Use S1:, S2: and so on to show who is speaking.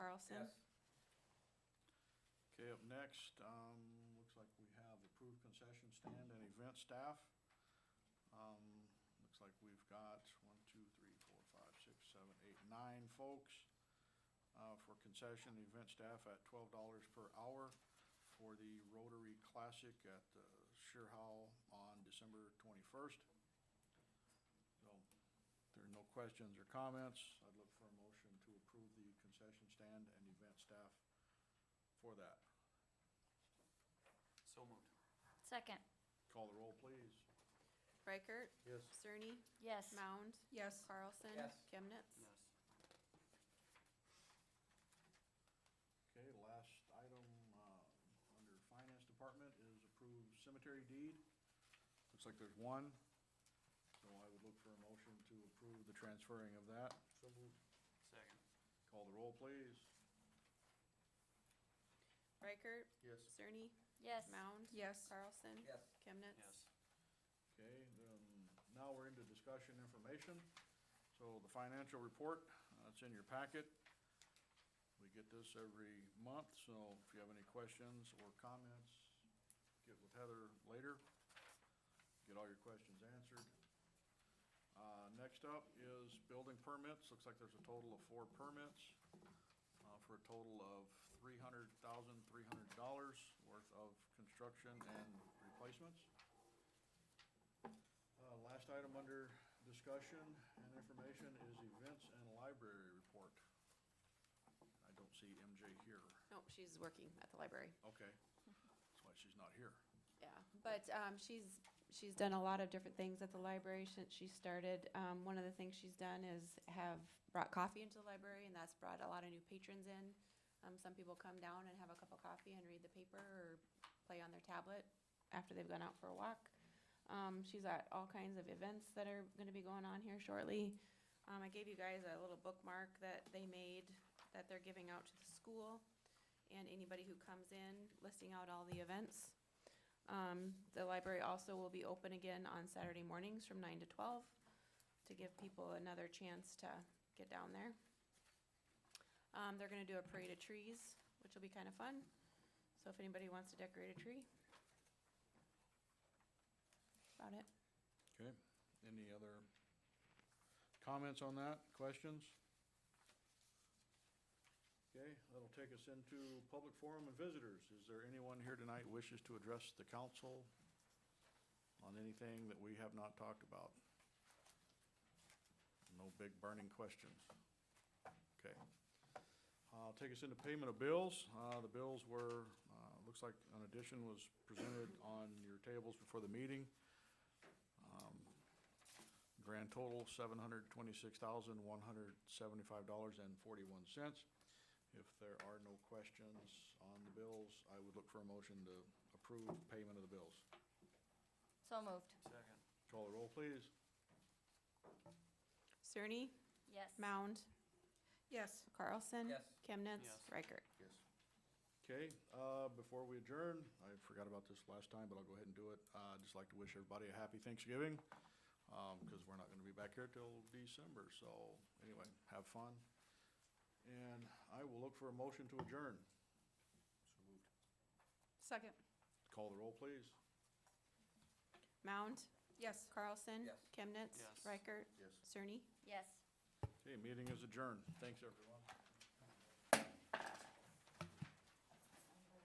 S1: Okay, up next, um, looks like we have approved concession stand and event staff. Um, looks like we've got one, two, three, four, five, six, seven, eight, nine folks, uh, for concession event staff at twelve dollars per hour for the Rotary Classic at the Sheerhow on December twenty-first. So, if there are no questions or comments, I'd look for a motion to approve the concession stand and event staff for that.
S2: So moved.
S3: Second,
S1: Call the roll, please.
S4: Reichert?
S1: Yes.
S4: Cerny?
S3: yes.
S4: Mound?
S5: Yes.
S4: Carlson?
S2: Yes.
S4: Chemnitz?
S2: Yes.
S1: Okay, last item, uh, under Finance Department is approved cemetery deed. Looks like there's one, so I would look for a motion to approve the transferring of that.
S2: Second.
S1: Call the roll, please.
S4: Reichert?
S1: Yes.
S4: Cerny?
S3: Yes.
S4: Mound?
S5: Yes.
S4: Carlson? Yes. Chemnitz?
S2: Yes.
S1: Okay, then, now we're into discussion information. So the financial report, uh, it's in your packet. We get this every month, so if you have any questions or comments, get with Heather later. Get all your questions answered. Uh, next up is building permits. Looks like there's a total of four permits, uh, for a total of three hundred thousand, three hundred dollars worth of construction and replacements. Uh, Last item under discussion and information is events and library report. I don't see MJ here.
S4: Nope, she's working at the library.
S1: Okay, that's why she's not here.
S4: Yeah, but um, she's, she's done a lot of different things at the library since she started. Um, One of the things she's done is have brought coffee into the library, and that's brought a lot of new patrons in. Um, Some people come down and have a cup of coffee and read the paper or play on their tablet after they've gone out for a walk. Um, She's at all kinds of events that are gonna be going on here shortly. Um, I gave you guys a little bookmark that they made, that they're giving out to the school and anybody who comes in, listing out all the events. Um, the library also will be open again on Saturday mornings from nine to twelve to give people another chance to get down there. Um, they're gonna do a parade of trees, which will be kind of fun. So if anybody wants to decorate a tree. About it.
S1: Okay, any other comments on that, questions? Okay, that'll take us into public forum and visitors. Is there anyone here tonight wishes to address the council on anything that we have not talked about? No big burning questions. Okay. Uh, Take us into payment of bills. Uh, The bills were, uh, looks like an addition was presented on your tables before the meeting. Um, Grand total, seven hundred twenty-six thousand, one hundred seventy-five dollars and forty-one cents. If there are no questions on the bills, I would look for a motion to approve payment of the bills.
S3: So moved,
S2: Second.
S1: Call the roll, please.
S4: Cerny,
S3: yes.
S4: Mound,
S5: Yes.
S4: Carlson.
S2: Yes.
S4: Chemnitz.
S2: Yes.
S4: Reichert.
S1: Yes. Okay, uh, before we adjourn, I forgot about this last time, but I'll go ahead and do it. Uh, I'd just like to wish everybody a happy Thanksgiving, um, because we're not gonna be back here till December, so anyway, have fun. And I will look for a motion to adjourn. So moved.
S5: Second.
S1: Call the roll, please.
S4: Mound,
S5: Yes.
S4: Carlson.
S2: Yes.
S4: Chemnitz.
S2: Yes.
S4: Reichert.
S1: Yes.
S4: Cerny.
S3: Yes.
S1: Okay, meeting is adjourned. Thanks, everyone.